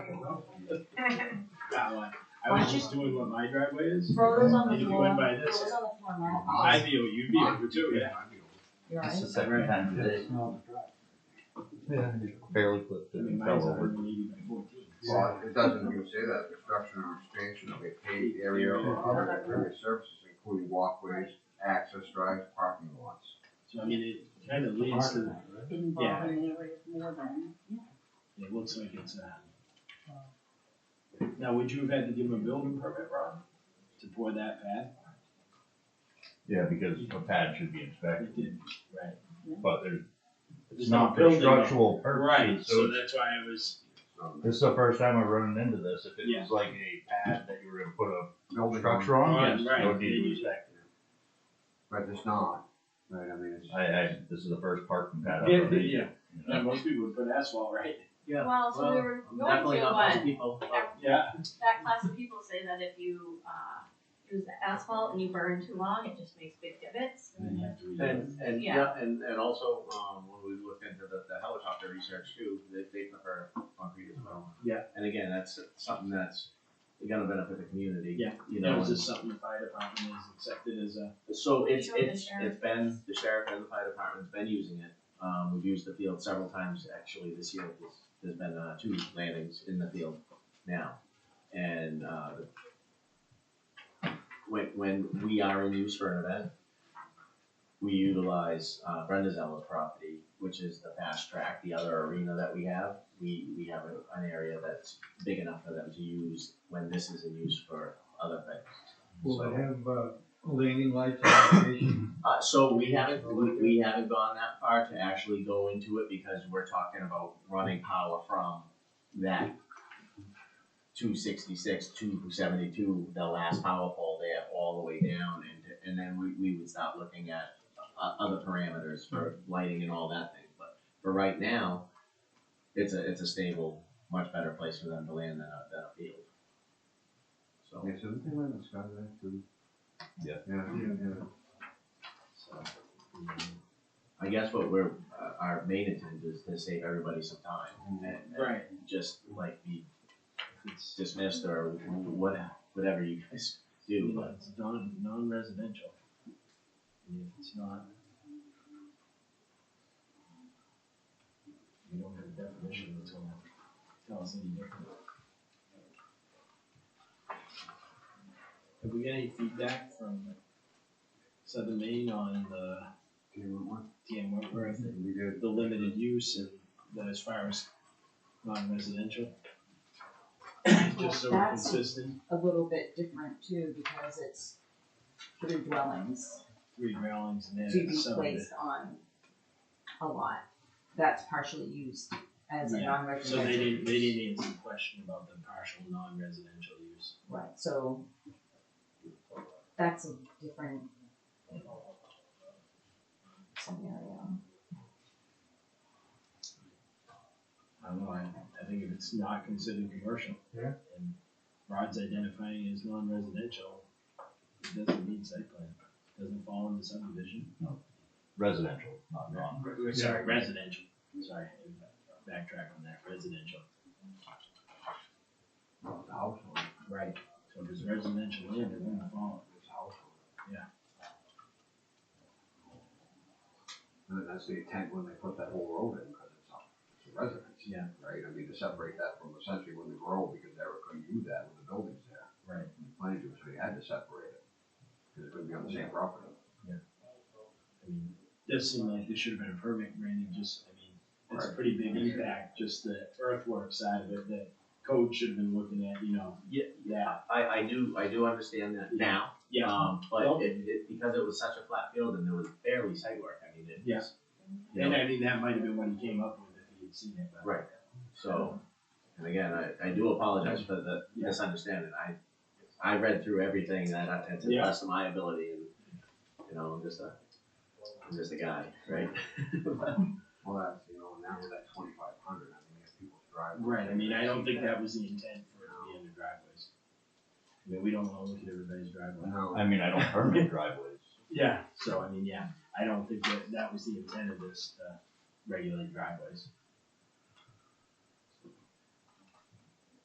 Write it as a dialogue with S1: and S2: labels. S1: That one. I was just doing what my driveway is.
S2: Rhoda's on
S1: And if
S2: the
S1: you
S2: floor.
S1: went by
S2: Rhoda's
S1: this,
S2: on the floor now.
S1: I'd be, you'd be over too, yeah.
S2: You're
S3: It's
S2: right.
S3: the second time today, barely clipped
S1: I
S3: it
S1: mean,
S3: and
S1: mine's
S3: fell over.
S1: hundred and eighty by fourteen.
S4: Well, it doesn't even say that, construction or expansion of a paved area or other area services, including walkways, access drives, parking lots.
S1: So I mean, it kind of leads to,
S5: involving the rate more than,
S1: it looks like it's, uh. Now, would you have had to give him a building permit, Rob, to pour that pad?
S6: Yeah, because the pad should be
S1: It
S6: inspected,
S1: did, right.
S6: but there's,
S1: There's
S6: it's
S1: no
S6: not for
S1: building on it.
S6: structural
S1: Right,
S6: purposes,
S1: so
S6: so
S1: that's why I was,
S4: So,
S6: this is the first time I've run into this, if it
S1: Yeah.
S6: was like a pad that you were gonna put a
S4: Building
S6: structure
S1: Right,
S6: on, yes,
S1: right.
S6: no need to inspect it.
S4: But it's not, right, I mean, it's.
S6: I, I, this is the first parking pad I've
S1: yeah,
S6: run into.
S1: yeah,
S6: you know.
S1: yeah, most people would put asphalt, right?
S7: Yeah.
S5: well, so we
S7: Well,
S5: were
S7: I'm
S5: going
S7: Definitely
S5: to,
S7: not most
S5: but
S7: people. uh,
S5: that,
S1: Yeah,
S5: that class of people say that if you, uh, use asphalt and you burn too long, it just makes big divots.
S1: And then you have to redo it.
S7: And, and,
S5: Yeah.
S7: yeah, and, and also, um, when we looked into the, the helicopter research too, they, they prefer concrete as well.
S1: Yeah.
S7: And again, that's something that's gonna benefit the community.
S1: Yeah.
S7: You
S1: That
S7: know,
S1: was just something the fire department has accepted as a,
S7: and so it's,
S5: Sure, the
S7: it's,
S5: sheriff.
S7: it's been, the sheriff and the fire department's been using it. Um, we've used the field several times, actually, this year, there's, there's been, uh, two landings in the field now. And, uh, when, when we are in use for an event, we utilize uh, Brenda Zeller's property, which is the fast track, the other arena that we have. We, we have a- an area that's big enough for them to use when this is in use for other things.
S8: Will they
S7: So,
S8: have, uh, landing lights on the station?
S7: uh, so we haven't, we, we haven't gone that far to actually go into it because we're talking about running power from that two sixty-six, two seventy-two, the last power pole there, all the way down, and, and then we, we would start looking at o- other parameters for lighting and all that thing, but for right now, it's a, it's a stable, much better place for them to land than a, than a field. So,
S4: Yeah, so they live in Skyline too.
S6: Yeah.
S4: Yeah, yeah.
S1: so. mm,
S7: I guess what we're, uh, our main intent is to save everybody some
S1: Mm-hmm.
S7: time, and, and
S1: Right.
S7: just like be
S1: It's,
S7: dismissed or what, whatever you guys do,
S1: you know,
S7: but.
S1: it's non, non-residential. I mean, It's not. We don't have a definition that's gonna tell us any different. Have we got any feedback from Southern Maine on the
S4: Do you want one?
S1: DM Wentworth and
S4: We did.
S1: the limited use and that as far as non-residential? Just so we're
S2: That's-
S1: consistent,
S2: A little bit different too, because it's three dwellings
S1: three railings and
S2: to
S1: then
S2: be
S1: some of it.
S2: placed on a lot that's partially used as a
S1: Yeah, So
S2: non-residential.
S1: they didn't, they
S2: use.
S1: didn't answer the question about the partial non-residential use.
S2: Right, so that's a different scenario.
S1: I don't know, I, I think if it's not considered commercial.
S8: Yeah.
S1: And Rod's identifying it as non-residential, it doesn't need site plan, doesn't fall into subdivision.
S6: Residential, not non.
S1: Re- Sorry, residential, sorry, backtrack on that, residential.
S4: Well, the household,
S1: Right. So if it's residential land, it wouldn't fall.
S4: it's household.
S1: Yeah.
S4: And that's the intent when they put that whole road in, because it's a- it's a residence.
S1: Yeah.
S4: Right, I mean, to separate that from essentially when they grow, because they were couldn't do that with the buildings there.
S1: Right.
S4: Planning to, so you had to separate it, because it would be on the same property.
S1: I mean, does seem like there should have been a permit granted, just, I mean, it's a
S4: Right.
S1: pretty big impact, just the earthwork side of it, that code should have been looking at, you know.
S7: Yeah,
S1: Yeah.
S7: I, I do, I do understand that now, um,
S1: Well-
S7: but it, it, because it was such a flat field and there was barely site work, I mean, it
S1: Yeah.
S7: was. you
S1: And
S7: know,
S1: I mean, that might have been what he came up with if he had seen it, but.
S7: Right, so, and again, I, I do apologize for the misunderstanding, I, I read through everything that I, to the
S1: Yeah.
S7: best of my ability and, you know, I'm just a, I'm just a guy, right?
S4: Well, that's, you know, now with that twenty-five hundred, I mean, you have people drive.
S1: Right, I mean, I don't think that was the intent for it to be under driveways. I mean, we don't wanna look at everybody's driveway.
S4: No.
S6: I mean, I don't permit driveways.
S1: Yeah. So, I mean, yeah, I don't think that, that was the intent of this, to regulate driveways.